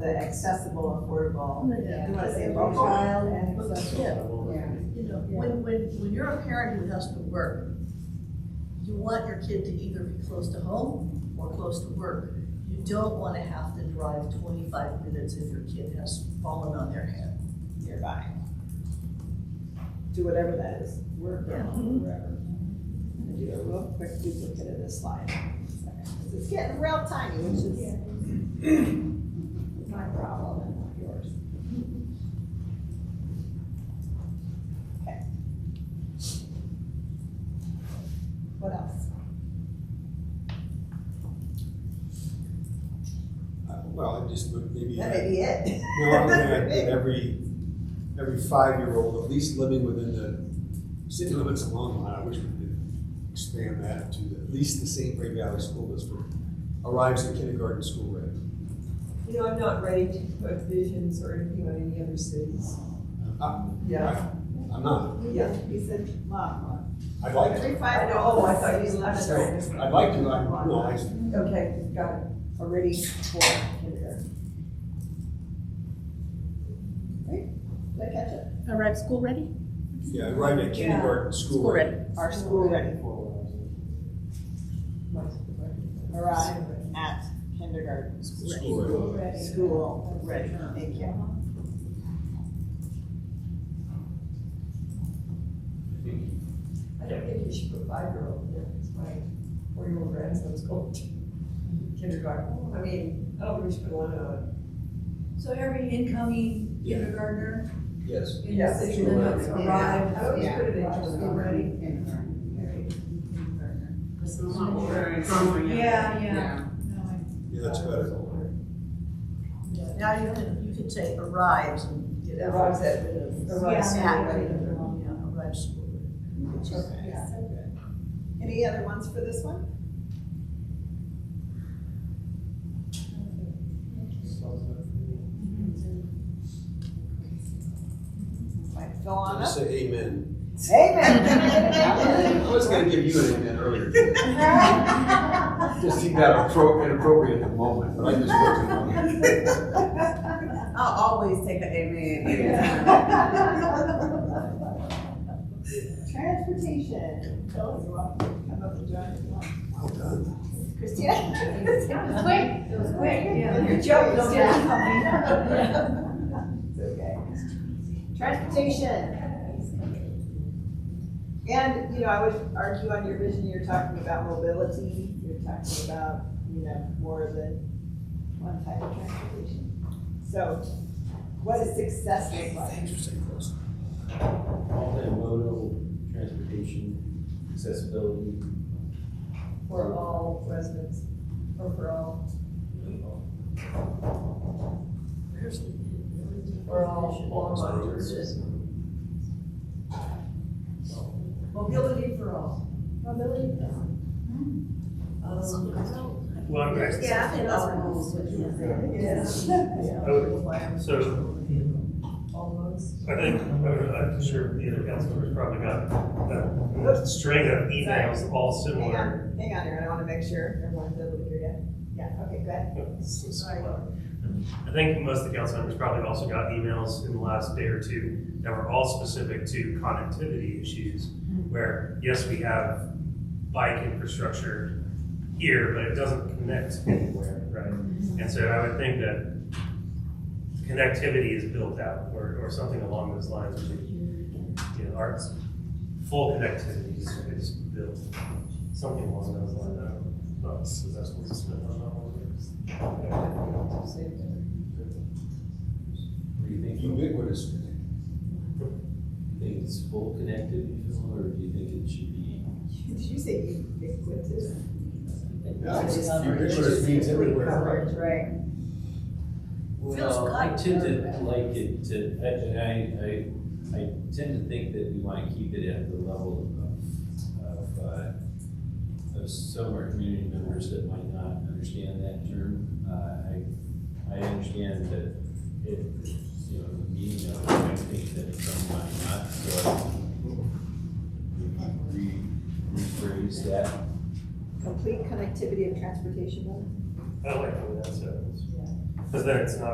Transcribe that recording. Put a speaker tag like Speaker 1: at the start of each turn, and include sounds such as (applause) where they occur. Speaker 1: the accessible, affordable,
Speaker 2: Yeah.
Speaker 1: you wanna say low child and
Speaker 2: But
Speaker 1: accessible.
Speaker 2: still,
Speaker 3: Yeah.
Speaker 2: you know, when, when, when you're a parent who has to work, you want your kid to either be close to home or close to work. You don't wanna have to drive twenty-five minutes if your kid has fallen on their head.
Speaker 1: nearby. Do whatever that is, work or
Speaker 2: Yeah.
Speaker 1: home, wherever. I'm gonna do a real quick duplicate of this slide. Because it's getting real tiny, which is (clears throat) my problem and not yours. Okay. What else?
Speaker 4: Uh, Well, I just would maybe, uh,
Speaker 1: That may be it. (laughs)
Speaker 4: no, I'm gonna add that every, every five-year-old, at least living within the city limits of Longmont, I wish we could expand that to at least the St. Clair Valley School District, arrives at kindergarten school ready.
Speaker 5: You know, I'm not ready to put visions or anything on any other cities.
Speaker 4: Uh,
Speaker 1: Yeah,
Speaker 4: I'm not,
Speaker 1: yeah, he said, mom,
Speaker 4: I'd like to,
Speaker 1: every five.
Speaker 5: Oh, I thought you left.
Speaker 4: I'd like to, I, no, I,
Speaker 5: Okay, got it. Already for kindergarten.
Speaker 1: Did I catch it?
Speaker 6: Arrive school ready?
Speaker 4: yeah, arrive at kindergarten school
Speaker 6: School
Speaker 4: ready.
Speaker 6: ready.
Speaker 1: Our school ready, arrive
Speaker 5: Alright.
Speaker 1: at kindergarten,
Speaker 4: School ready.
Speaker 1: school ready, thank you.
Speaker 5: I don't think you should put five-year-old there, because my four-year-old grandson's going to kindergarten. I mean, I don't think we should put one on.
Speaker 7: So every incoming
Speaker 4: Yeah.
Speaker 7: kindergartner
Speaker 4: Yes.
Speaker 7: in the city limits
Speaker 5: Yeah.
Speaker 7: arrived.
Speaker 5: I always put it in just already.
Speaker 7: Yeah, yeah.
Speaker 4: Yeah, that's better.
Speaker 2: Yeah, Now you can, you can say arrives and get out.
Speaker 5: Arrives at- Arrives
Speaker 2: Yeah.
Speaker 5: at kindergarten.
Speaker 2: Yeah, arrives school ready.
Speaker 1: Okay, so good. Any other ones for this one? Might fill on up.
Speaker 4: Say amen.
Speaker 1: Amen.
Speaker 4: I was gonna give you an amen earlier. Just seemed that appro- inappropriate at the moment, but I just worked it on it.
Speaker 3: I'll always take an amen
Speaker 1: Transportation. Phil, you want to come up and join us?
Speaker 4: Well done.
Speaker 1: Christina?
Speaker 7: Quick, it was quick, yeah.
Speaker 1: Your joke don't
Speaker 7: Yeah. (laughs)
Speaker 1: It's okay. Transportation. And, you know, I would argue on your vision, you're talking about mobility, you're talking about, you know, more than one type of transportation. So what does success look like?
Speaker 4: Interesting question.
Speaker 8: Multimodal transportation, accessibility.
Speaker 5: For all residents, or for all,
Speaker 2: Where's the- where's the
Speaker 5: for all,
Speaker 2: definition?
Speaker 5: all
Speaker 2: Is
Speaker 5: mothers.
Speaker 2: it-
Speaker 5: Mobility for all. Mobility for all. Um,
Speaker 9: Well, I'm next.
Speaker 7: Yeah, I think that's what it was.
Speaker 5: Yes. (laughs)
Speaker 9: Oh, So
Speaker 5: Almost.
Speaker 9: I think, I'm sure the other council members probably got that string of emails all
Speaker 1: Hang
Speaker 9: similar.
Speaker 1: on, hang on, Aaron, I want to make sure everyone's able to hear you. Yeah, okay, good.
Speaker 9: I think most of the council members probably also got emails in the last day or two that were all specific to connectivity issues, where, yes, we have bike infrastructure here, but it doesn't connect anywhere, right? And so I would think that connectivity is built out, or, or something along those lines, where we, you know, arts, full connectivity is, is built, something along those lines, I don't know, if that's what it's meant, I don't know.
Speaker 8: Do you think, do
Speaker 4: Ubiquitous.
Speaker 8: you think it's full connectivity, Phil, or do you think it should be?
Speaker 1: Did you say ubiquitous?
Speaker 4: Yeah, Ubiquitous means everywhere.
Speaker 1: Right.
Speaker 8: Well, I tend to like it to, I, I, I, I tend to think that we wanna keep it at the level of, of, uh, of some of our community members that might not understand that term. Uh, I, I understand that it, you know, the meaning of it, I think that some might not, so I re, rephrase that.
Speaker 1: Complete connectivity of transportation.
Speaker 9: I like the way that sounds. Because then it's not